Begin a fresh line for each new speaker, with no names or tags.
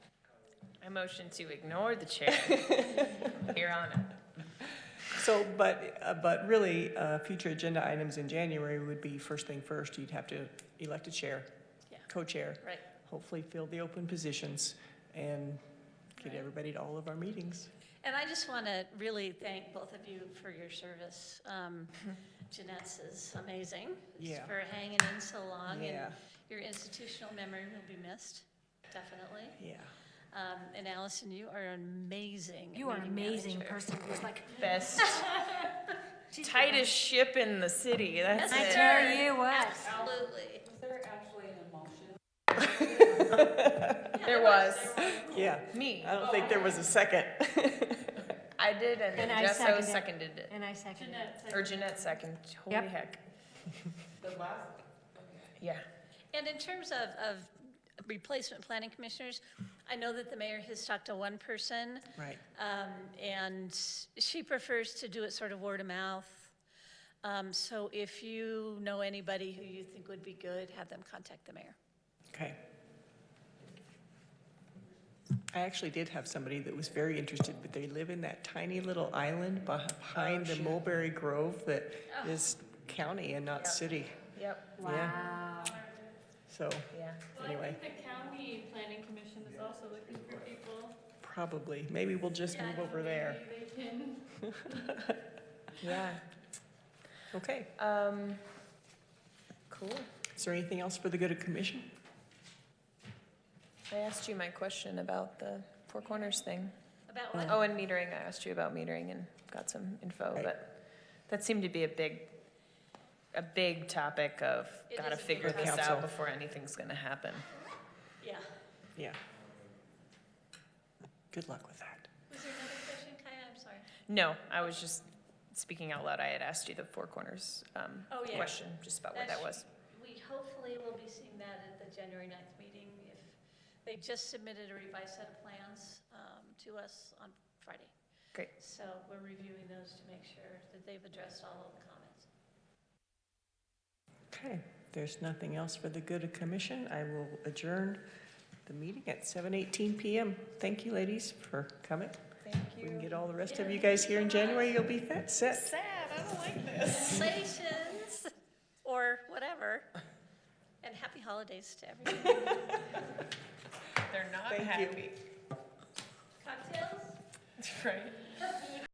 I motion to ignore the chair. Here on it.
So, but, uh, but really, uh, future agenda items in January would be first thing first, you'd have to elect a chair,
Yeah.
co-chair,
Right.
hopefully fill the open positions and get
Right.
everybody to all of our meetings.
And I just want to really thank both of you for your service. Um, Jeanette's is amazing.
Yeah.
For hanging in so long, and
Yeah,
your institutional memory will be missed, definitely.
yeah.
Um, And Allison, you are amazing.
You are an
meeting
amazing
manager.
person. It's like
Best, tightest ship in the city, that's
That's
it.
right.
tell you what.
Absolutely.
There was,
Yeah,
me,
I don't think there was a second.
I did, and then
And I
Jesso
seconded.
seconded it,
And I second it.
or Jeanette seconded, holy
Yep.
heck. The last?
And in terms of, of replacement planning commissioners, I know that the mayor has talked to one person.
Right.
Um, and she prefers to do it sort of word of mouth. Um, so if you know anybody who you think would be good, have them contact the mayor.
Okay. I actually did have somebody that was very interested, but they live in that tiny little island behind
Oh,
the Mulberry Grove that is county and not city.
Yeah, yep,
Wow.
So,
yeah.
Well, I
anyway,
think the county planning commission is also looking for people.
probably, maybe we'll just move over there.
Maybe they can
Yeah,
Okay,
um, cool.
is there anything else for the good of commission?
I asked you my question about the Four Corners thing.
About what?
Oh, and metering, I asked you about metering and got some info,
Right.
but that seemed to be a big, a big topic of
It
gotta
is a big
figure
topic.
this
Council.
out before anything's gonna happen.
Yeah.
Yeah. Good luck with that.
Was there another question, Kaya? I'm sorry.
No, I was just speaking out loud, I had asked you the Four Corners, um,
Oh, yeah.
question, just about what that was.
That's- We hopefully will be seeing that at the January 9th meeting if they just submitted a revised set of plans um, to us on Friday.
Great.
So we're reviewing those to make sure that they've addressed all of the comments.
Okay, there's nothing else for the good of commission. I will adjourn the meeting at 7:18 PM. Thank you, ladies, for coming.
Thank
We can get all the rest of you guys here in January, you'll be fet- set.
Congratulations, or whatever, and happy holidays to everyone.
They're not
Thank you.
happy,
Cocktails?
right?